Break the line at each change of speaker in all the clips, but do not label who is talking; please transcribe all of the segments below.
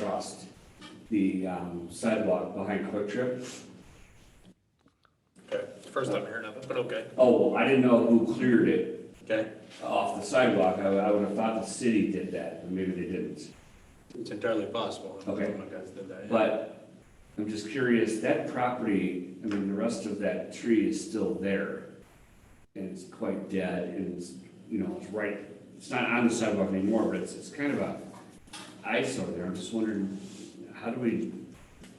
across the um, sidewalk behind Quick Trip.
Okay, first time hearing of it, but okay,
Oh, well, I didn't know who cleared it
okay,
off the sidewalk. I, I would have thought the city did that, but maybe they didn't.
it's entirely possible.
Okay.
My guys did that, yeah.
But I'm just curious, that property, I mean, the rest of that tree is still there. And it's quite dead and it's, you know, it's right, it's not on the sidewalk anymore, but it's, it's kind of a eyesore there. I'm just wondering, how do we,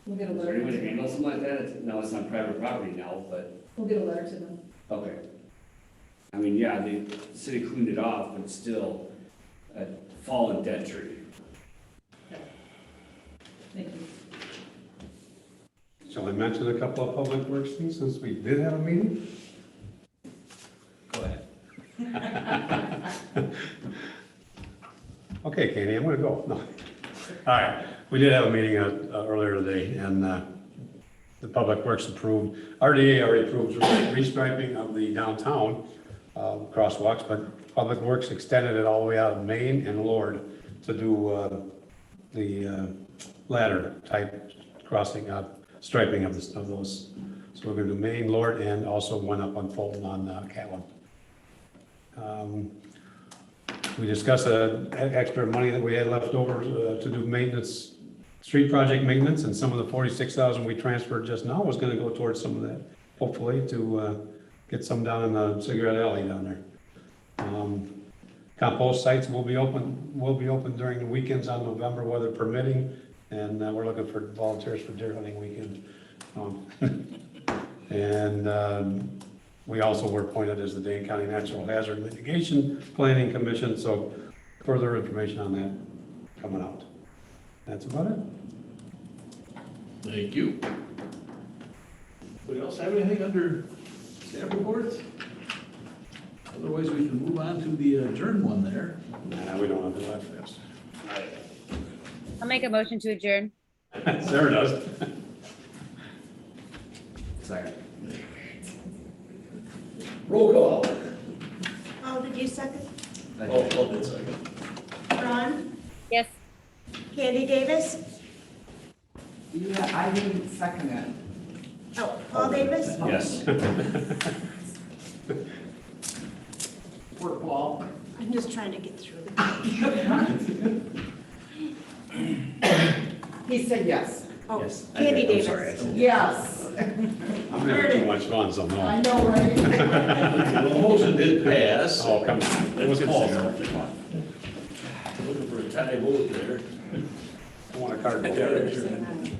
We'll get a
is there any way to
letter,
handle something like that? It's- No, it's not private property now, but
we'll get a letter to them.
Okay. I mean, yeah, the city cleaned it off, but still a fallen dead tree.
Thank you.
Shall I mention a couple of public works things since we did have a meeting?
Go ahead.
Okay, Katie, I'm gonna go. No. All right, we did have a meeting uh, uh, earlier today and uh, the public works approved, RDA already approved restriping of the downtown uh, crosswalks, but public works extended it all the way out of Maine and Lord to do uh, the uh, ladder type crossing up, striping of this, of those. So we're gonna do Maine, Lord, and also one up on Fulton on uh, Catlin. Um, We discussed the extra money that we had left over uh, to do maintenance, street project maintenance, and some of the forty-six thousand we transferred just now was gonna go towards some of that, hopefully, to uh, get some down in the cigarette alley down there. Um, Compost sites will be open, will be open during the weekends on November, weather permitting, and uh, we're looking for volunteers for deer hunting weekend. Um, And um, we also were appointed as the Dane County Natural Hazard Mitigation Planning Commission, so further information on that coming out. That's about it.
Thank you. Anybody else have anything under staff reports? Otherwise, we can move on to the adjourn one there.
Nah, we don't have to laugh fast.
I'll make a motion to adjourn.
Sarah does.
Sorry.
Roll call.
Oh, did you second?
Oh, hold it a second.
Ron?
Yes.
Candy Davis?
Yeah, I didn't second it.
Oh, Paul Davis?
Yes.
Fort Wall.
I'm just trying to get through.
He said yes.
Oh,
Yes. I-
Candy
I'm
Davis.
sorry, I said-
Yes.
I'm having too much fun, so
I
no.
know, right?
The motion did pass.
Oh, come on. It was close. I
Looking for a tie vote there.
want a card.
There, there.
vote.